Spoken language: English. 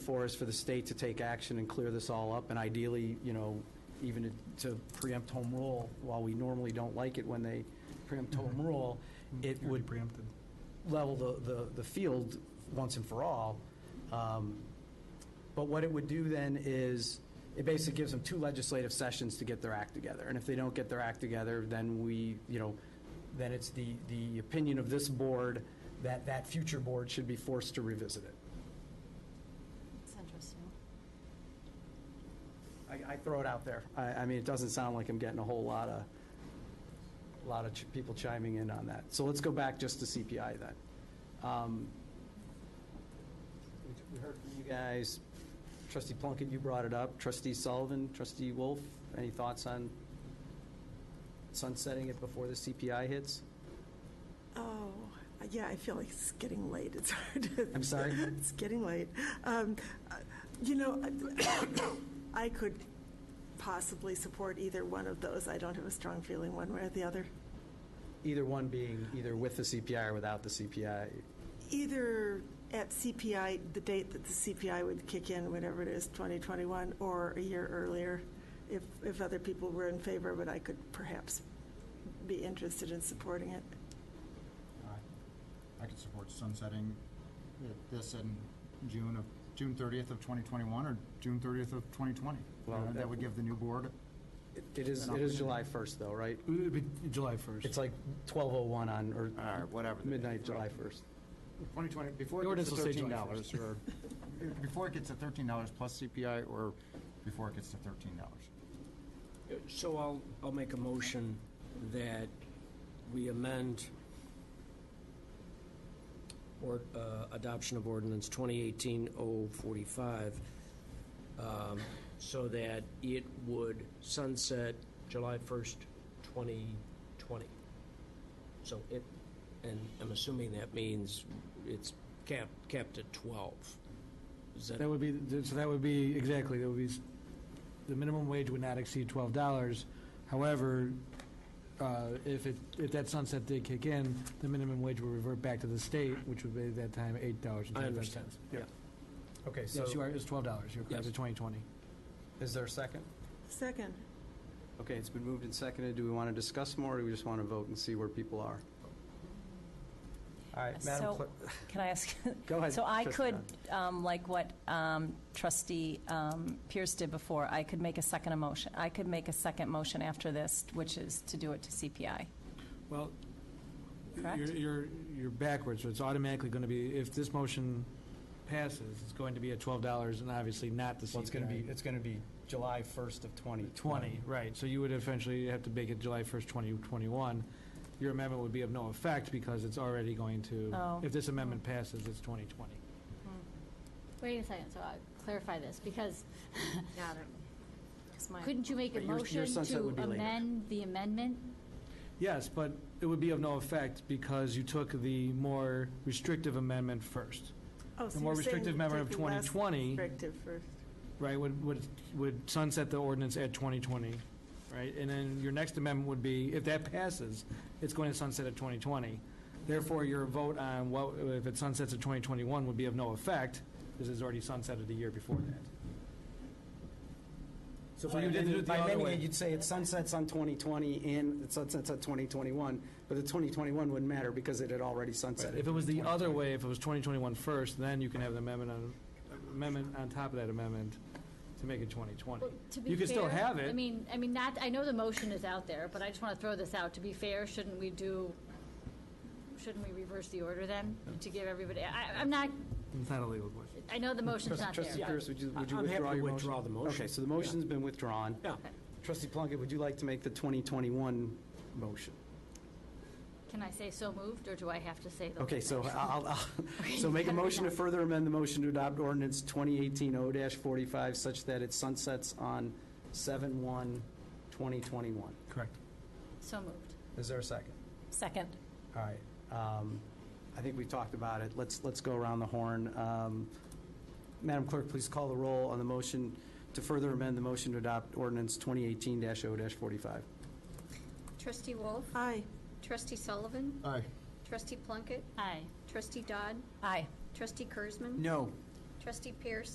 for us, for the state to take action and clear this all up, and ideally, you know, even to preempt home rule, while we normally don't like it when they preempt home rule, it Already would preempted. level the, the, the field once and for all. Um, But what it would do then is, it basically gives them two legislative sessions to get their act together. And if they don't get their act together, then we, you know, then it's the, the opinion of this board that that future board should be forced to revisit it. It's interesting. I, I throw it out there. I, I mean, it doesn't sound like I'm getting a whole lot of, a lot of ch- people chiming in on that. So let's go back just to CPI then. Um, we- We heard from you guys, trustee Plunkett, you brought it up, trustee Sullivan, trustee Wolf, any thoughts on sunsetting it before the CPI hits? Oh, yeah, I feel like it's getting late. It's hard to. I'm sorry? It's getting late. Um, uh, You know, I could possibly support either one of those. I don't have a strong feeling one way or the other. Either one being either with the CPI or without the CPI. Either at CPI, the date that the CPI would kick in, whatever it is, 2021, or a year earlier, if, if other people were in favor, but I could perhaps be interested in supporting it. I could support sunsetting it- this in June of, June 30th of 2021 or June 30th of 2020. You Well, know, that- That would give the new board, It- It is, it is July 1st though, right? It'd be July 1st. It's like 12:01 on, or or whatever. the- midnight, July 1st. 2020, before The it ordinance gets to will say July $13 or, before it gets to $13 plus CPI or before it gets to $13. So I'll, I'll make a motion that we amend or, uh, adoption of ordinance 2018-045, um, so that it would sunset July 1st, 2020. So it, and I'm assuming that means it's capped, capped at 12. Is that That would be, so that would be, exactly, that would be, s- the minimum wage would not exceed twelve dollars. However, uh, if it, if that sunset did kick in, the minimum wage would revert back to the state, which would be at that time eight dollars and I twenty-five understand. cents. Yeah. Okay, so. Yes, you are, it's twelve dollars, you're correct, Yes. it's twenty twenty. Is there a second? Second. Okay, it's been moved and seconded. Do we want to discuss more, or do we just want to vote and see where people are? All right, Madam So- Clerk, Can I ask? go ahead. So I Trustee could, Dunn. um, like what um, trustee um, Pierce did before, I could make a second emotion, I could make a second motion after this, which is to do it to CPI. Well, Correct? you're, you're, you're backwards, so it's automatically gonna be, if this motion passes, it's going to be at twelve dollars and obviously not the CPI. Well, it's going to be, it's going to be July 1st of 2020. 20, right, so you would essentially have to make it July 1st, 2021. Your amendment would be of no effect because it's already going to, Oh. if this amendment passes, it's 2020. Wait a second, so I'll clarify this, because Got it. Because my, couldn't you make a But your- your motion sunset to would be later. amend the amendment? Yes, but it would be of no effect because you took the more restrictive amendment first, Oh, so The more you're saying restrictive amendment of take the less 2020. Restrictive first. right? Would, would would sunset the ordinance at 2020, right? And then your next amendment would be, if that passes, it's going to sunset at 2020. Therefore, your vote on what, if it sunsets at 2021 would be of no effect, because it's already sunsetted a year before that. So by amending it the By other amending way. it, you'd say it sunsets on 2020 and it sunsets on 2021, but the 2021 wouldn't matter because it had already sunsetted. If it was the other way, if it was 2021 first, then you can have an amendment on, amendment on top of that amendment to make it 2020. Well, to be You can still fair, have I it. mean, I mean, not, I know the motion is out there, but I just want to throw this out. To be fair, shouldn't we do, shouldn't we reverse the order then, to give everybody, I, I'm not, It's not a legal question. I know the motion's not there. Trustee Pierce, would you, would you I'm happy withdraw to your motion? withdraw the motion. Okay, so the motion's been withdrawn. Yeah. Trustee Plunkett, would you like to make the 2021 motion? Can I say so moved, or do I have to say the? Okay, so I'll, I'll- so make a motion to further amend the motion to adopt ordinance 2018-0-45 such that it sunsets on 7/1/2021. Correct. So moved. Is there a second? second. All right. um, I think we talked about it. Let's, let's go around the horn. Um, Madam Clerk, please call the roll on the motion to further amend the motion to adopt ordinance 2018-0-45. Trustee Wolf, Aye. Trustee Sullivan, Aye. Trustee Plunkett, Aye. Trustee Dodd, Aye. Trustee Kurzman, No. Trustee Pierce,